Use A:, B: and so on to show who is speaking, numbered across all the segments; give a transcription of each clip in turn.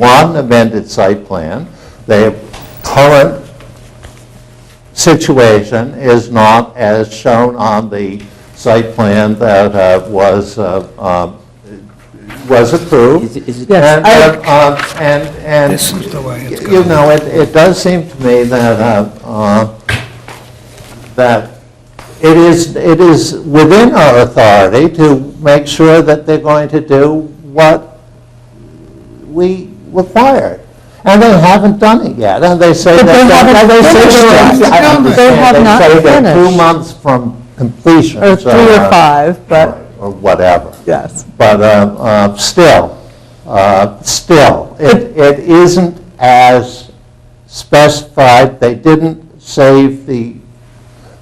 A: one amended site plan. Their current situation is not as shown on the site plan that uh, was, uh, um, was approved.
B: Is it- is it-
A: And, uh, um, And, and.
C: This is the way it's
A: You
C: going.
A: know, it, it does seem to me that, uh, uh, that it is, it is within our authority to make sure that they're going to do what we require. And they haven't done it yet, and they say that.
D: But they haven't
A: and they say
D: finished
A: they're-
D: it.
A: I understand,
D: They have not
A: They say they're two
D: finished.
A: months from completion.
D: Or
A: so,
D: three or
A: uh,
D: five, but,
A: Or whatever.
D: yes.
A: But uh, uh, still, uh, still, it it isn't as specified, they didn't save the,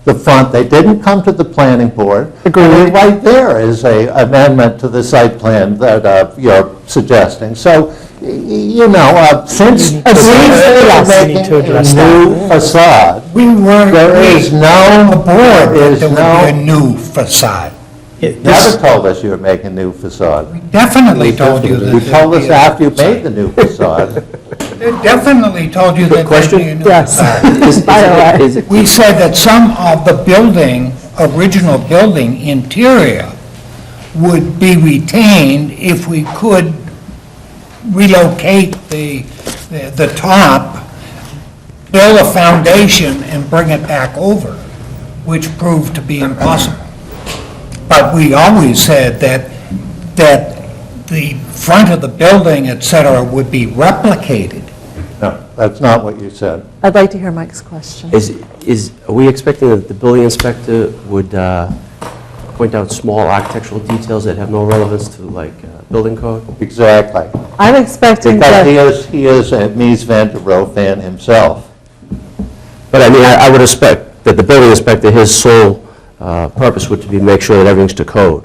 A: the front, they didn't come to the planning board. I mean, Right there is a amendment to the site plan that uh, you're suggesting. So, y- y- you know, uh, since
D: to address that.
A: since
D: We need
A: they're
D: to
A: making
D: address
A: a new facade,
C: We weren't.
A: there is no,
C: The
A: there
C: board,
A: is
C: there would be a
A: no,
C: new facade.
A: never told us you were making new facade.
C: Definitely told you that.
A: You told
C: there'd
A: us
C: be a-
A: after you made the new facade.
C: They Definitely told you that there'd be a new
D: Yes.
C: facade.
B: Is- is
D: By the
B: it-
D: way.
B: is it-
C: We said that some of the building, original building interior would be retained if we could relocate the, the the top, build a foundation and bring it back over, which proved to be impossible. But we always said that, that the front of the building, et cetera, would be replicated.
A: No, that's not what you said.
D: I'd like to hear Mike's question.
B: Is, is, are we expecting that the building inspector would uh, point out small architectural details that have no relevance to like uh, building code?
A: Exactly.
D: I'm expecting
A: Because he
D: that,
A: is, he is a Mies van der Rohe fan himself.
B: But I mean, I I would expect that the building inspector, his sole uh, purpose would to be make sure that everything's to code.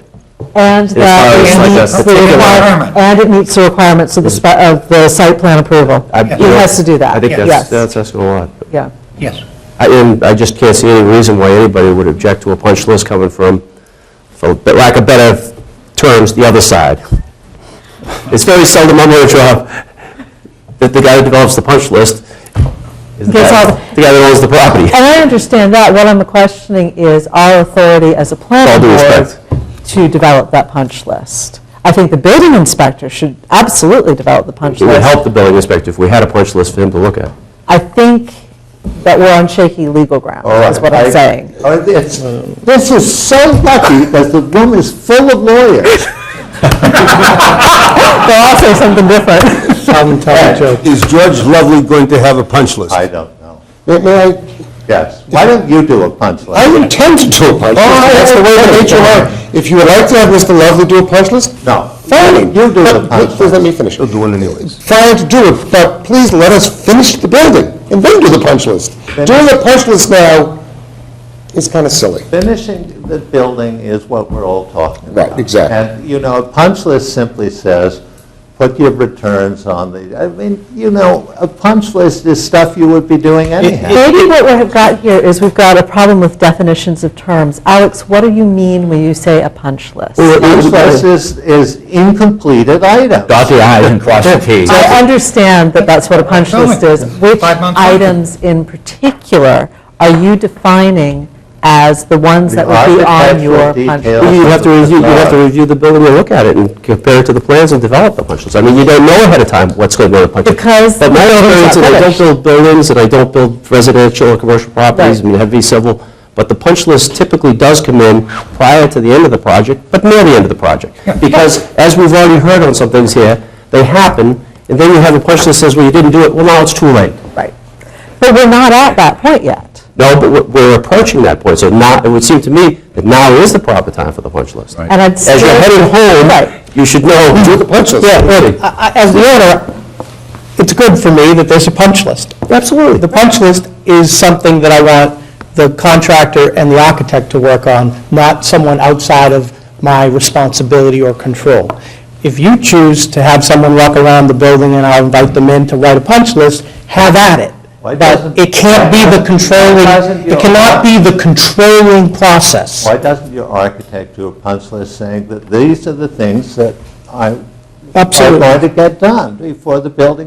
D: and that
B: far as like a
D: it meets the
B: particular-
D: requirement, and it meets the requirements of the, spe- of the site plan approval.
B: I-
D: He has to do that.
B: I think that's,
D: Yes.
B: that's asking a lot.
D: Yeah.
C: Yes.
B: I- And I just can't see any reason why anybody would object to a punch list coming from, for lack of better terms, the other side. It's very seldom I'm going to drop that the guy who develops the punch list is the
D: Gets
B: guy
D: all the-
B: the guy that owns the property.
D: And I understand that, what I'm questioning is our authority as a
B: All
D: planning
B: due
D: board
B: respect.
D: to develop that punch list. I think the building inspector should absolutely develop the punch
B: It would
D: list.
B: help the building inspector if we had a punch list for him to look at.
D: I think that we're on shaky legal ground,
A: All right,
D: is what
A: I-
D: I'm saying.
A: Oh, it's- This is so lucky that the room is full of lawyers.
D: They'll all say something different.
E: Is George Lovely going to have a punch list?
A: I don't know.
E: May- may I-
A: Yes. Why don't you do a punch
E: I
A: list?
E: intend to do a punch list. That's the way the HR, if you would like to have Mr. Lovely do a punch list,
A: No.
E: fine.
A: You do the
E: But
A: punch
E: Please let
A: list.
E: me finish.
F: He'll do one anyways.
E: Fine to do it, but please let us finish the building and then do the punch list. Doing the punch list now is kind of silly.
A: Finishing the building is what we're all talking about.
E: Right, exactly.
A: And, you know, a punch list simply says, put your returns on the, I mean, you know, a punch list is stuff you would be doing anyhow.
D: Maybe what we've got here is we've got a problem with definitions of terms. Alex, what do you mean when you say a punch list?
A: Punch list is, is incompleted item.
G: Dot the i's and cross the t's.
D: I understand that that's what a punch
C: Five
D: list is. Which
C: months.
D: items in particular are you defining as the ones that would be on your
A: architectural
D: punch
A: details
D: list?
B: You'd have to review, you'd have to review the building and look at it and compare it to the plans and develop the punch list. I mean, you don't know ahead of time what's going to go to punch list.
D: Because
B: But my
D: the building's
B: experience,
D: not
B: and I don't
D: finished.
B: build buildings, and I don't build residential or commercial properties, I
D: Right.
B: mean, heavy civil, but the punch list typically does come in prior to the end of the project, but near the end of the project. Because, as we've already heard on some things here, they happen, and then you have a punch list that says, well, you didn't do it, well, now it's too late.
D: Right. But we're not at that point yet.
B: No, but we're- we're approaching that point, so now, it would seem to me that now is the proper time for the punch list.
D: And I'd
B: As you're
D: still-
B: heading
D: Right.
B: home, you should know, do the punch list. Yeah, ready.
H: As the owner, it's good for me that there's a punch list.
B: Absolutely.
H: The punch list is something that I want the contractor and the architect to work on, not someone outside of my responsibility or control. If you choose to have someone walk around the building and I'll invite them in to write a punch list, have at it.
A: Why
H: But
A: doesn't-
H: it can't be
A: Why
H: the
A: doesn't
H: controlling,
A: your-
H: it cannot be the controlling process.
A: Why doesn't your architect do a punch list saying that these are the things that I, are
H: Absolutely.
A: going to get done before the building